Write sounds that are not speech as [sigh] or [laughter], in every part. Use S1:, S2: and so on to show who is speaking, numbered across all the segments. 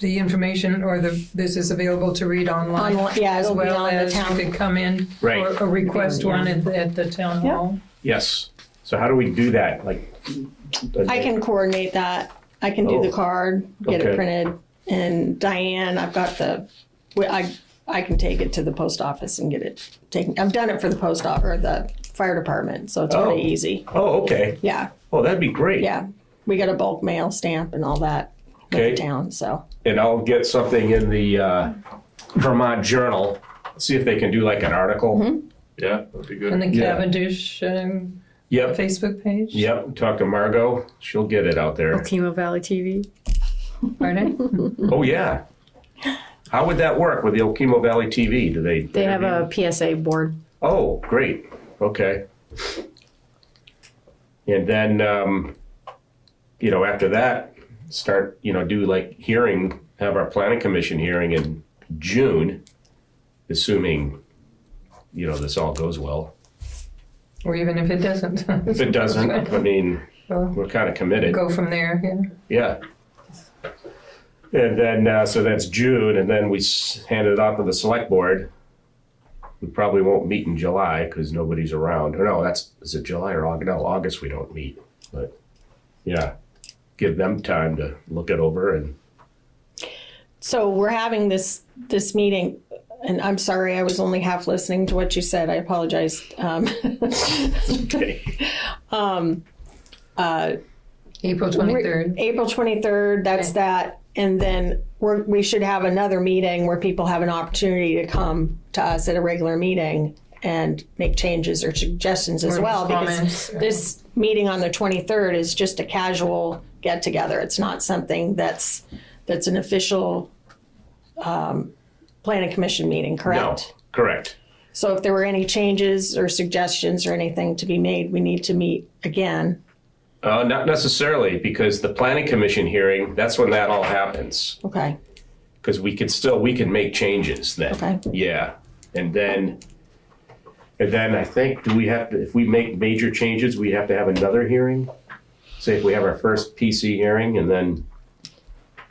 S1: the information or the, this is available to read online.
S2: On- yeah, it'll be on the
S1: As well as
S2: town.
S1: you could come in
S3: Right.
S1: or or request
S2: Yeah.
S1: one at, the- at the town
S2: Yeah.
S1: hall.
S3: Yes. So how do we do that? Like,
S2: I can coordinate that. I can do
S3: Oh.
S2: the card, get
S3: Okay.
S2: it printed, and Diane, I've got the, we- I, I can take it to the post office and get it taken. I've done it for the post office or the fire department, so it's
S3: Oh.
S2: really easy.
S3: Oh, okay.
S2: Yeah,
S3: Oh, that'd be great.
S2: yeah. We got a bulk mail stamp and all that with
S3: Okay.
S2: the town, so.
S3: And I'll get something in the uh, Vermont Journal. See if they can do like an article.
S2: Mm-hmm.
S4: Yeah, that'd be
S1: And
S4: good.
S1: the
S3: Yeah.
S1: Cavendish um,
S3: Yep.
S1: Facebook page.
S3: Yep. Talk to Margot. She'll get it out there.
S5: Chemo Valley TV.
S1: Pardon?
S3: Oh yeah. How would that work with the Okemo Valley TV? Do they?
S5: They have a PSA board.
S3: Oh, great. Okay. And then, um, you know, after that, start, you know, do like hearing, have our planning commission hearing in June, assuming, you know, this all goes well.
S1: Or even if it doesn't. [laughs]
S3: If it doesn't, I mean,
S1: Well,
S3: we're kind of committed.
S1: Go from there, yeah.
S3: Yeah. And then, uh, so that's June, and then we s- hand it off to the select board. We probably won't meet in July because nobody's around. Or no, that's, is it July or August? No, August we don't meet, but yeah. Give them time to look it over and,
S2: So we're having this, this meeting, and I'm sorry, I was only half listening to what you said. I apologize. Um,
S3: okay,
S1: April 23rd.
S2: April 23rd, that's that. And then we're, we should have another meeting where people have an opportunity to come to us at a regular meeting and make changes or suggestions as
S1: Or
S2: well.
S1: comments,
S2: Because
S1: yeah.
S2: this meeting on the 23rd is just a casual get together. It's not something that's, that's an official, um, planning commission meeting,
S3: no,
S2: correct?
S3: correct.
S2: So if there were any changes or suggestions or anything to be made, we need to meet again.
S3: Uh, not necessarily because the planning commission hearing, that's when that all happens.
S2: Okay,
S3: because we could still we can make changes then.
S2: Okay.
S3: Yeah, and then and then I think do we have to if we make major changes we have to have another hearing. Say if we have our first PC hearing and then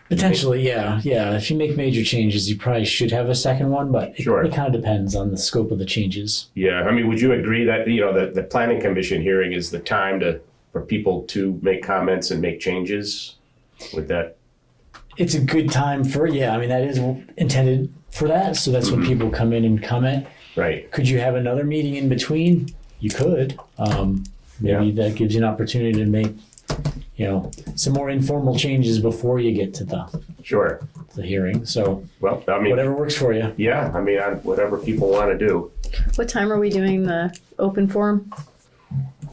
S6: Potentially, yeah, yeah. If you make major changes, you probably should have a second one, but it,
S3: Sure.
S6: it kind of depends on the scope of the changes.
S3: yeah, I mean, would you agree that you know the the planning commission hearing is the time to for people to make comments and make changes? With that,
S6: It's a good time for yeah. I mean, that is intended for that, so that's
S3: Mm-hmm.
S6: when people come in and comment.
S3: right?
S6: Could you have another meeting in between? You could. Um, maybe that gives you an opportunity to make you know some more informal changes before you get to the
S3: Sure.
S6: the hearing. So
S3: Well, I mean,
S6: whatever works for you.
S3: yeah, I mean, I, whatever people want to do.
S5: What time are we doing the open forum?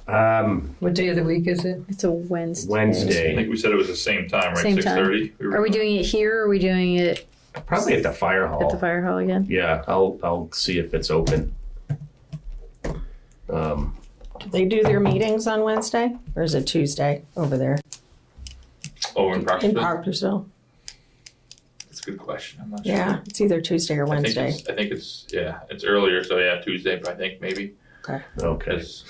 S3: Um,
S1: What day of the week is it?
S5: It's a Wednesday.
S4: I
S3: Wednesday,
S4: think we said it was the same time, right?
S5: Same
S4: Six
S5: time.
S4: thirty?
S5: Are we doing it here or are we doing it
S3: probably at the fire hall.
S5: at the fire hall again?
S3: Yeah, I'll I'll see if it's open. Um,
S2: do they do their meetings on Wednesday or is it Tuesday over there?
S4: Oh, in
S2: In
S4: Proctorville?
S2: Parkersville.
S4: That's a good question. I'm not sure.
S2: Yeah, it's either Tuesday or
S4: I think
S2: Wednesday.
S4: it's, I think it's, yeah, it's earlier, so yeah, Tuesday, but I think maybe,
S3: okay.
S4: because.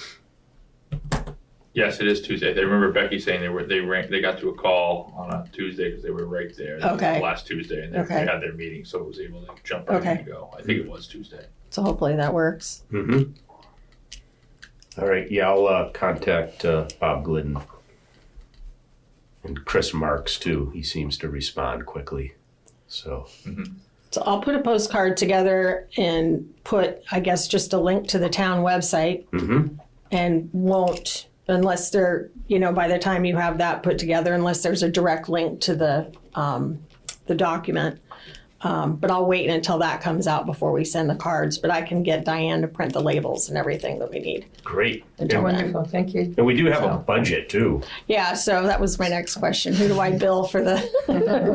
S4: Yes, it is Tuesday. They remember Becky saying they were, they ran, they got to a call on a Tuesday because they were right there. That was
S2: Okay.
S4: Last Tuesday, and they
S2: Okay.
S4: they had their meeting, so it was able to jump right in
S2: Okay.
S4: and go. I think it was Tuesday.
S2: So hopefully that works.
S3: hmm All right. Yeah, I'll uh, contact uh, Bob Glidden and Chris Marks too. He seems to respond quickly. So
S2: So I'll put a postcard together and put, I guess, just a link to the town website
S4: Mm-hmm.
S3: Mhm.
S2: and won't, unless there, you know, by the time you have that put together, unless there's a direct link to the, um, the document. Um, but I'll wait until that comes out before we send the cards, but I can get Diane to print the labels and everything that we need.
S3: great.
S2: Yeah.
S1: Wonderful, thank you.
S3: And we do have a
S2: So-
S3: budget too.
S2: Yeah, so that was my next question. Who do
S3: [laughs]
S2: I bill for the,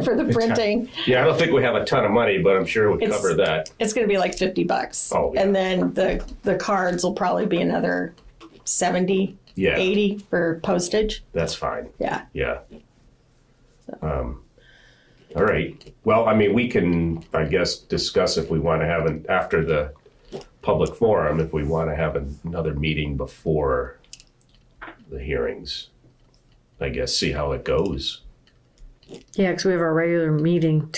S2: [laughs] for the printing?
S3: Yeah, I don't think we have a ton of money, but I'm sure we
S2: It's-
S3: cover that.
S2: It's gonna be like fifty bucks.
S3: Oh, yeah.
S2: And then the, the cards will probably be another 70,
S3: Yeah,
S2: 80 for postage.
S3: that's fine.
S2: Yeah.
S3: Yeah. Um, all right. Well, I mean, we can, I guess, discuss if we want to have an, after the public forum, if we want to have another meeting before the hearings. I guess, see how it goes.
S5: Yeah, because we have our regular meeting